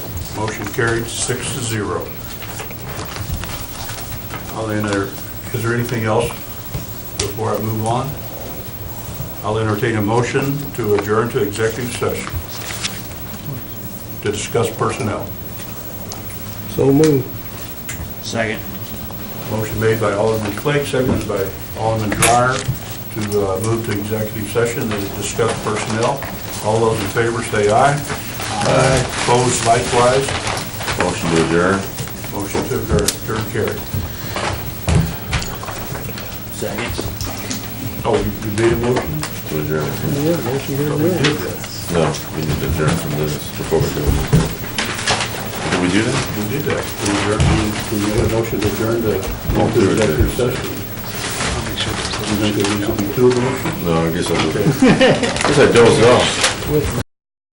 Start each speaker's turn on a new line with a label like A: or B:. A: Motion carried six to zero. I'll enter, is there anything else before I move on? I'll entertain a motion to adjourn to executive session to discuss personnel.
B: So moved.
C: Second.
A: Motion made by Alderman Flake, seconded by Alderman Dreyer to uh, move to executive session to discuss personnel. All those in favor say aye. Aye. Opposed likewise.
D: Motion to adjourn.
A: Motion to adjourn- adjourn carried.
C: Second.
A: Oh, you you made a motion?
D: To adjourn.
B: Yeah, motion to
A: We
B: adjourn.
A: did that.
D: No, we need to adjourn from this before we do it. Did we do that?
A: We did that. We adjourned, we made a motion to adjourn to go to executive session. You think there needs to be two motions?
D: No, I guess I, guess I dozed off.